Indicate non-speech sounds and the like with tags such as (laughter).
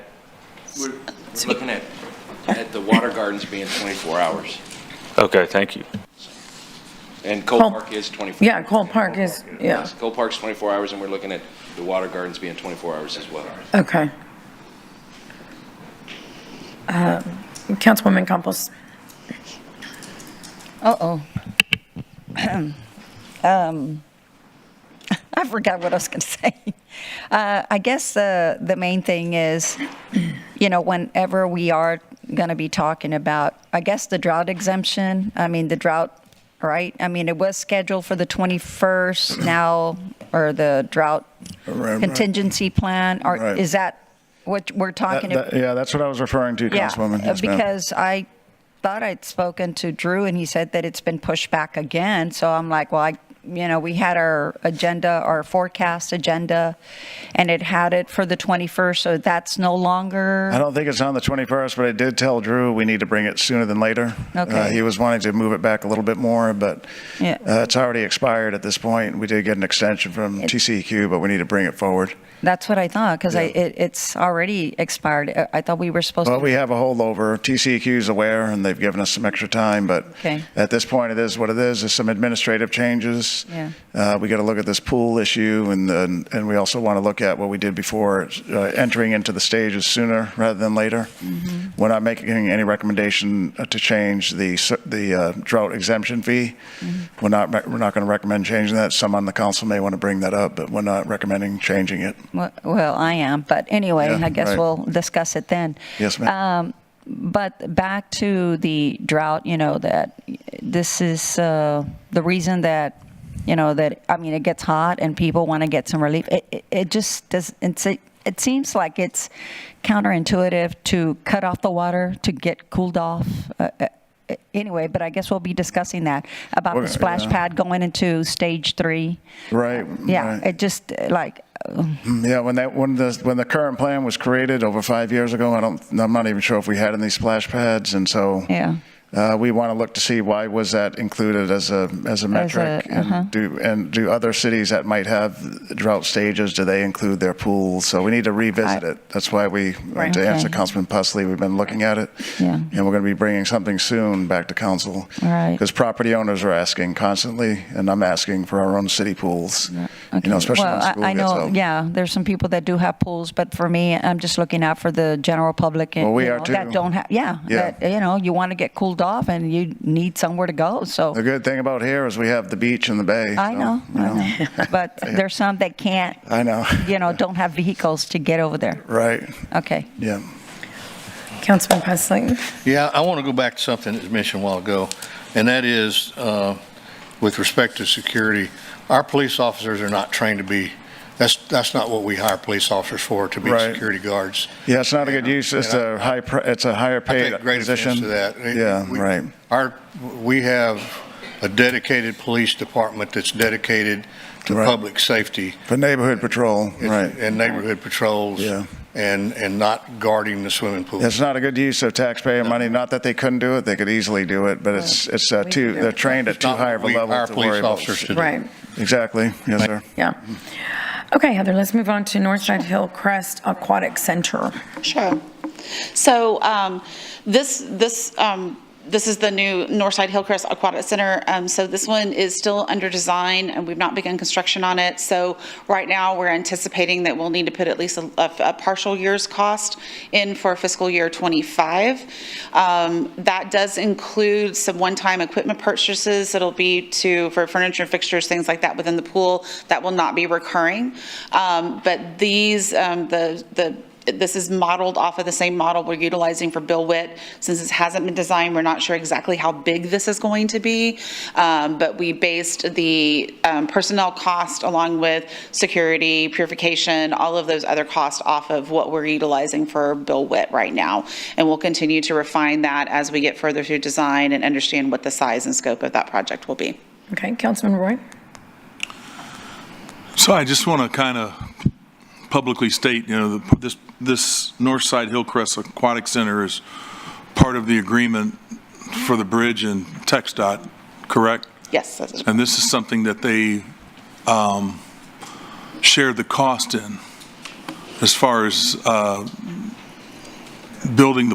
We're we're looking at, at the water gardens being 24 hours, Okay, thank you. and Cole Cole- Park is 24. Yeah, Cole Park is, yeah, Yes, Cole Park's 24 hours, and we're looking at the water gardens being 24 hours as well. okay. Um, Councilwoman Campos, Uh-oh. (clears throat) Um, (laughs) I forgot what I was going to (laughs) say. Uh, I guess uh, the main thing is, (clears throat) you know, whenever we are going to be talking about, I guess the drought exemption, I mean, the drought, right? I mean, it was scheduled for the (clears throat) 21st now, or the drought Right, right. contingency plan, or Right. is that what we're That- talking about? that- Yeah, that's what I was referring to, Yeah, Councilwoman. uh, Yes, ma'am. Because I thought I'd spoken to Drew and he said that it's been pushed back again. So I'm like, well, I, you know, we had our agenda, our forecast agenda, and it had it for the 21st. So that's no I longer. don't think it's on the 21st, but I did tell Drew we need to bring it sooner than later. Okay. Uh, He was wanting to move it back a little bit more, but Yeah. uh, it's already expired at this point. We did get an extension from TCEQ, but we need to bring it forward. That's what I thought because I Yeah. it, it's already expired. I- I thought we were supposed Well, to. we have a holdover. TCEQ's aware, and they've given us some extra time, but Okay. at this point, it is what it is. There's some administrative changes. Yeah. Uh, We got to look at this pool issue, and then, and we also want to look at what we did before, uh, entering into the stages sooner rather than later. Mm-hmm. We're not making any recommendation uh, to change the s- the uh, drought exemption fee. Mm-hmm. We're not, rec- we're not going to recommend changing that. Some on the council may want to bring that up, but we're not recommending changing it. Well, well, I am, but anyway, Yeah, I guess right. we'll discuss it then. Yes, ma'am. Um, but back to the drought, you know, that this is uh, the reason that, you know, that, I mean, it gets hot and people want to get some relief. It, it, it just does, it's, it, it seems like it's counterintuitive to cut off the water to get cooled off. Uh, uh, anyway, but I guess we'll be discussing that about We're- the splash yeah. pad going into stage three. Right. Yeah, right. it just uh, like, Yeah, when that, when the, when the current plan was created over five years ago, I don't, I'm not even sure if we had any splash pads, and so. Yeah. Uh, we want to look to see why was that included as a, as a metric? uh-huh. And do, and do other cities that might have drought stages, do they include their pools? So we need to revisit I- it. That's why we, Right. to answer Okay. Councilman Pusley, we've been looking at it. Yeah. And we're going to be bringing something soon back to council. Right. Because property owners are asking constantly, and I'm asking for our own city pools. You Okay. know, especially well, when I- school I gets know, out. yeah, there's some people that do have pools, but for me, I'm just looking out for the general public. and, Well, we you are know, That too. don't have, yeah, Yeah. that, you know, you want to get cooled off and you need somewhere to go, so. The good thing about here is we have the beach and the bay. I so, know, you I know, (laughs) (laughs) but there's some that can't, I know. you know, don't have vehicles to get over there. Right. Okay. Yeah. Councilman Pusley. Yeah, I want to go back to something that was mentioned a while ago, and that is uh, with respect to security. Our police officers are not trained to be, that's, that's not what we hire police officers for, to be Right. security guards. Yeah, it's not a good use. It's And I- a high. pr- It's a higher I paid take great position. offense to that. Yeah, We- right. Our, we have a dedicated police department that's dedicated to Right. public safety. For neighborhood patrol, right? And neighborhood patrols. Yeah. And, and not guarding the swimming pool. It's not a good use of taxpayer money. Not that they couldn't do it; they could easily do it. But it's it's uh, too. They're trained at It's too not high what of a we level hire to police worry about. officers to do. Right, Exactly. Yes, sir. yeah. Okay, Heather, let's move on to Northside Hillcrest Aquatic Center. Sure. So um, this, this, um, this is the new Northside Hillcrest Aquatic Center. Um, So this one is still under design, and we've not begun construction on it. So right now, we're anticipating that we'll need to put at least a a partial year's cost in for fiscal year '25. That does include some one-time equipment purchases. It'll be to, for furniture, fixtures, things like that within the pool. That will not be recurring. Um, But these, um, the, the this is modeled off of the same model we're utilizing for Bill Witt. Since this hasn't been designed, we're not sure exactly how big this is going to be. Um, But we based the um, personnel cost along with security, purification, all of those other costs off of what we're utilizing for Bill Witt right now. And we'll continue to refine that as we get further through design and understand what the size and scope of that project will be. Okay, Councilman Roy? So I just want to kind of publicly state, you know, the- this, this Northside Hillcrest Aquatic Center is part of the agreement for the bridge and Tech dot, correct? Yes, that's- And this is something that they um, shared the cost in as far as uh, building the